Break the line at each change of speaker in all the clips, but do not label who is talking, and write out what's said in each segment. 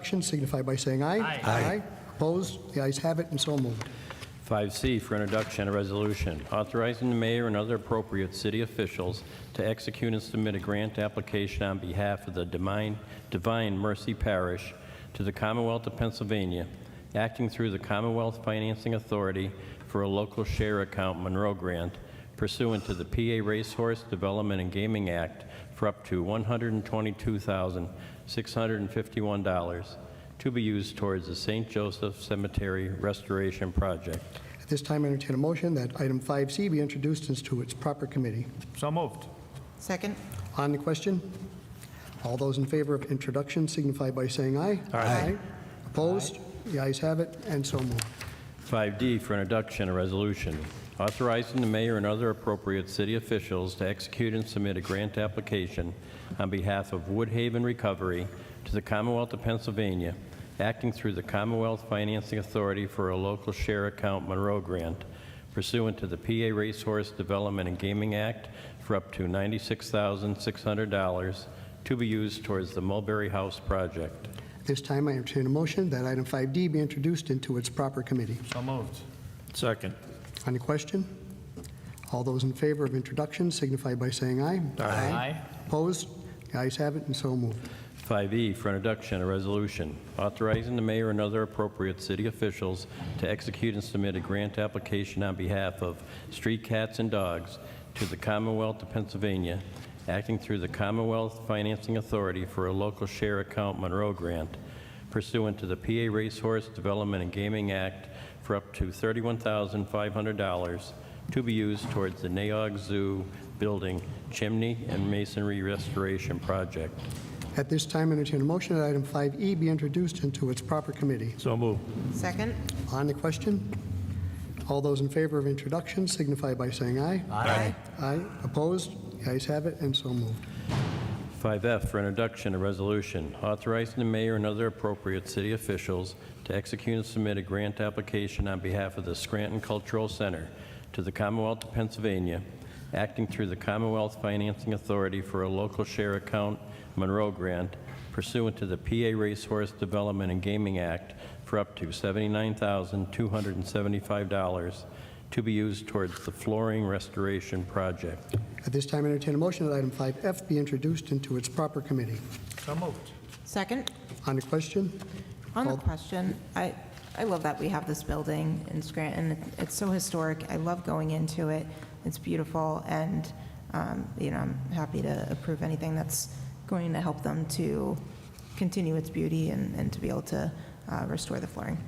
action signify by saying aye.
Aye.
Aye. Opposed? The ayes have it, and so moved.
5C for introduction, a resolution authorizing the mayor and other appropriate city officials to execute and submit a grant application on behalf of the Divine Divine Mercy Parish to the Commonwealth of Pennsylvania, acting through the Commonwealth Financing Authority for a local share account Monroe grant pursuant to the PA Racehorse Development and Gaming Act for up to $122,651 to be used towards the St. Joseph Cemetery Restoration Project.
At this time, I entertain a motion that item 5C be introduced into its proper committee.
So moved.
Second?
On the question, all those in favor of introduction signify by saying aye. Aye. Opposed? The ayes have it, and so moved.
5D for introduction, a resolution authorizing the mayor and other appropriate city officials to execute and submit a grant application on behalf of Woodhaven Recovery to the Commonwealth of Pennsylvania, acting through the Commonwealth Financing Authority for a local share account Monroe grant pursuant to the PA Racehorse Development and Gaming Act for up to $96,600 to be used towards the Mulberry House project.
At this time, I entertain a motion that item 5D be introduced into its proper committee.
So moved.
Second.
On the question, all those in favor of introduction signify by saying aye. Opposed? The ayes have it, and so moved.
5E E for introduction, a resolution authorizing the mayor and other appropriate city officials to execute and submit a grant application on behalf of Street Cats and Dogs to the Commonwealth of Pennsylvania, acting through the Commonwealth Financing Authority for a local share account Monroe grant pursuant to the PA Racehorse Development and Gaming Act for up to $31,500 to be used towards the Naog Zoo building chimney and masonry restoration project.
At this time, I entertain a motion that item 5E be introduced into its proper committee.
So moved.
Second?
On the question, all those in favor of introduction signify by saying aye.
Aye.
Aye. Opposed? The ayes have it, and so moved.
5F for introduction, a resolution authorizing the mayor and other appropriate city officials to execute and submit a grant application on behalf of the Scranton Cultural Center to the Commonwealth of Pennsylvania, acting through the Commonwealth Financing Authority for a local share account Monroe grant pursuant to the PA Racehorse Development and Gaming Act for up to $79,275 to be used towards the flooring restoration project.
At this time, I entertain a motion that item 5F be introduced into its proper committee.
So moved.
Second?
On the question,
On the
Called-
question, I, I love that we have this building in Scranton. It's so historic. I love going into it. It's beautiful, and, um, you know, I'm happy to approve anything that's going to help them to continue its beauty and, and to be able to uh, restore the flooring.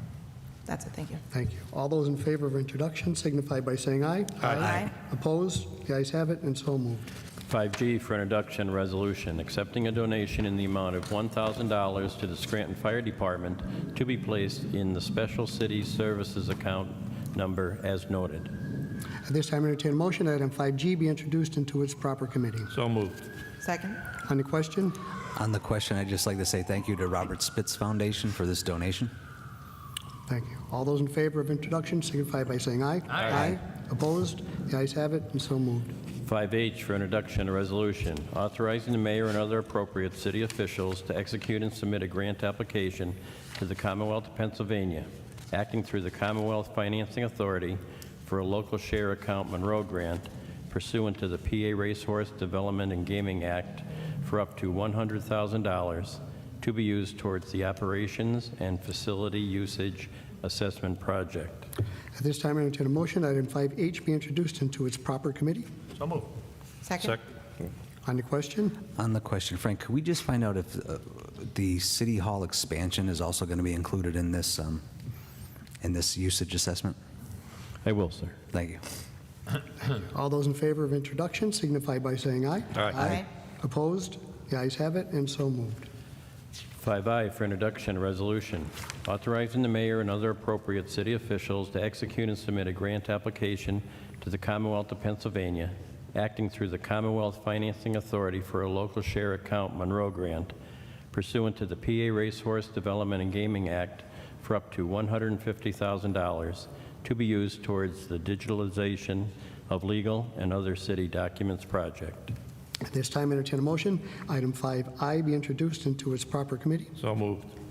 That's it, thank you.
thank you. All those in favor of introduction signify by saying aye.
Aye.
Opposed? The ayes have it, and so moved.
5G for introduction resolution, accepting a donation in the amount of $1,000 to the Scranton Fire Department to be placed in the Special City Services Account number as noted.
At this time, I entertain a motion that item 5G be introduced into its proper committee.
So moved.
Second?
On the question,
On the question, I'd just like to say thank you to Robert Spitz Foundation for this donation.
thank you. All those in favor of introduction signify by saying aye. Aye. Opposed? The ayes have it, and so moved.
5H for introduction resolution, authorizing the mayor and other appropriate city officials to execute and submit a grant application to the Commonwealth of Pennsylvania, acting through the Commonwealth Financing Authority for a local share account Monroe grant pursuant to the PA Racehorse Development and Gaming Act for up to $100,000 to be used towards the operations and facility usage assessment project.
At this time, I entertain a motion that item 5H be introduced into its proper committee.
So moved.
Second?
On the question,
On the question, Frank, could we just find out if uh, the City Hall expansion is also going to be included in this, um, in this usage assessment?
I will, sir.
Thank you.
all those in favor of introduction signify by saying aye.
Aye.
Aye.
Opposed? The ayes have it, and so moved.
5I for introduction, resolution authorizing the mayor and other appropriate city officials to execute and submit a grant application to the Commonwealth of Pennsylvania, acting through the Commonwealth Financing Authority for a local share account Monroe grant pursuant to the PA Racehorse Development and Gaming Act for up to $150,000 to be used towards the digitalization of legal and other city documents project.
At this time, I entertain a motion, item 5I be introduced into its proper committee.
So moved.